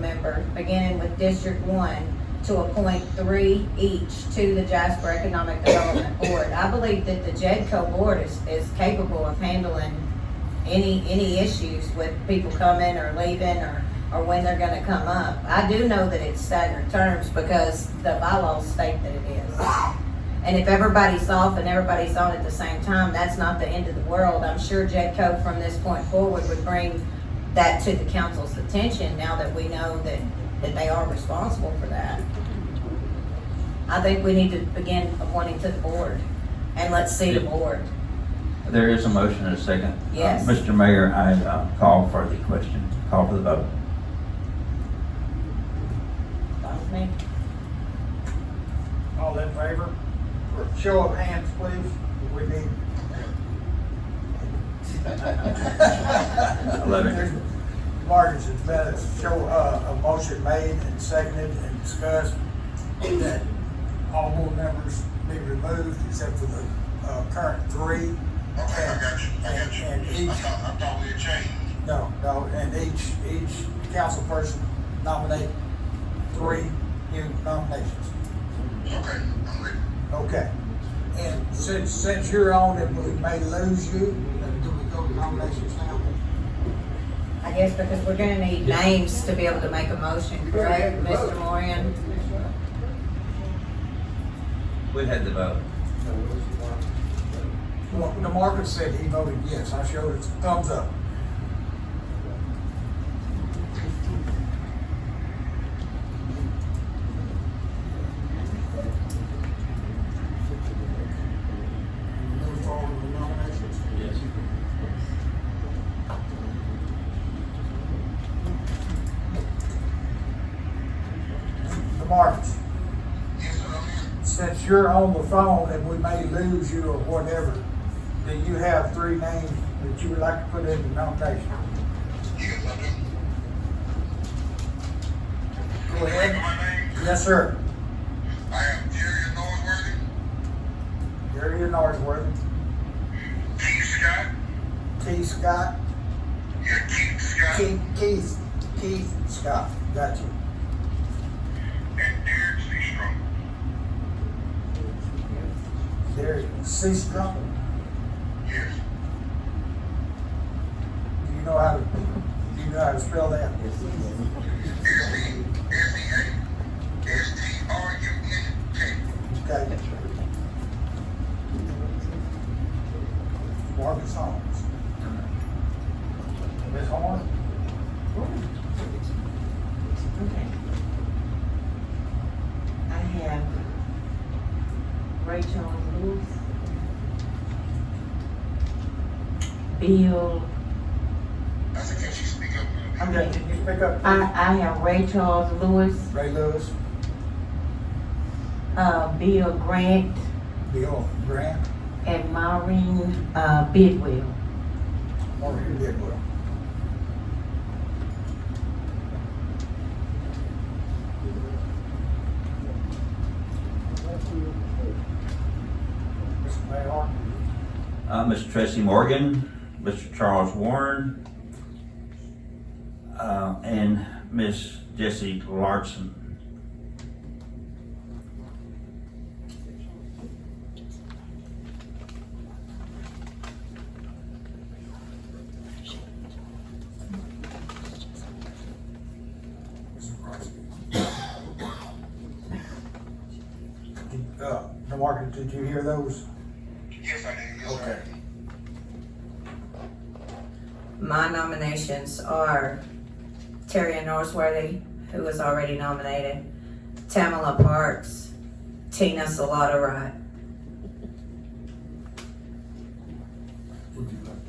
November, beginning with District One, to appoint three each to the Jasper Economic Development Board. I believe that the JEDCO board is, is capable of handling any, any issues with people coming or leaving or, or when they're gonna come up. I do know that it's staggered terms because the bylaws state that it is. And if everybody's off and everybody's on at the same time, that's not the end of the world. I'm sure Jetco from this point forward would bring that to the council's attention now that we know that, that they are responsible for that. I think we need to begin appointing to the board and let's see the board. There is a motion and a second. Yes. Uh, Mr. Mayor, I uh, call for the question, call for the vote. Follow me? All in favor? For a show of hands, please, we need. Eleven. Marcus, it's been a show, uh, a motion made and seconded and discussed that all board members be removed except for the, uh, current three. Okay, I got you, I got And- and you. I each- thought, I thought we had changed. No, no, and each, each council person nominate three new nominations. Okay, I'm with you. Okay. And since, since you're on it, we may lose you, then do we go to nominations now? I guess because we're gonna need names to be able to make a motion, correct, Mr. Moran? We had the vote. Well, the market said he voted yes, I showed his thumbs up. Move forward with the nominations. Yes. The markets. Yes, sir, I'm here. since you're on the phone and we may lose you or whatever, do you have three names that you would like to put in the nomination? Yes, I do. Go ahead. My name, Yes, sir. I am Jerry Norworthy, Gary Northworth, Keith Scott, T. Scott, yeah, Keith Scott, Keith, Keith, Keith Scott, got you. and Derek Seastrom. Gary C. Strong, Yes, do you know how to, do you know how to spell that? S E, S E A, S T R U N K. Okay. Marcus Holmes. Ms. Horn? Okay. I have Rachel Lewis. Bill, I said, can she speak up a little bit? Okay, can you pick up? I, I have Rachel Lewis, Ray Lewis, uh, Bill Grant, Bill Grant, and Maureen, uh, Bidwell. Maureen Bidwell. Mr. Mayor, Uh, Mr. Tracy Morgan, Mr. Charles Warren, uh, and Miss Jessie Larson. Mr. Crosby. Uh, DeMarcus, did you hear those? Yes, I did, yes, Okay. sir. My nominations are Terry Norsworthy, who was already nominated, Tamala Parks, Tina Salata Wright.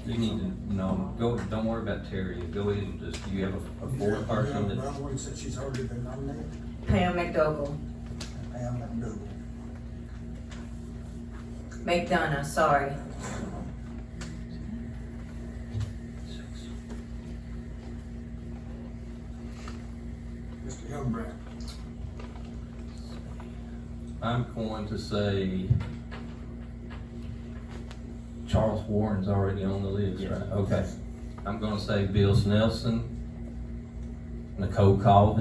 You need to, no, go, don't worry about Terry, go ahead and just, you have a- a board person Yeah, that, Brown Wood said she's already been nominated, Pam McDougal, Pam McDougal. McDonough, sorry. Mr. Hildebrand. I'm going to say Charles Warren's already on the list, right? Okay. I'm gonna say Bill Snelson, Nicole Colvin.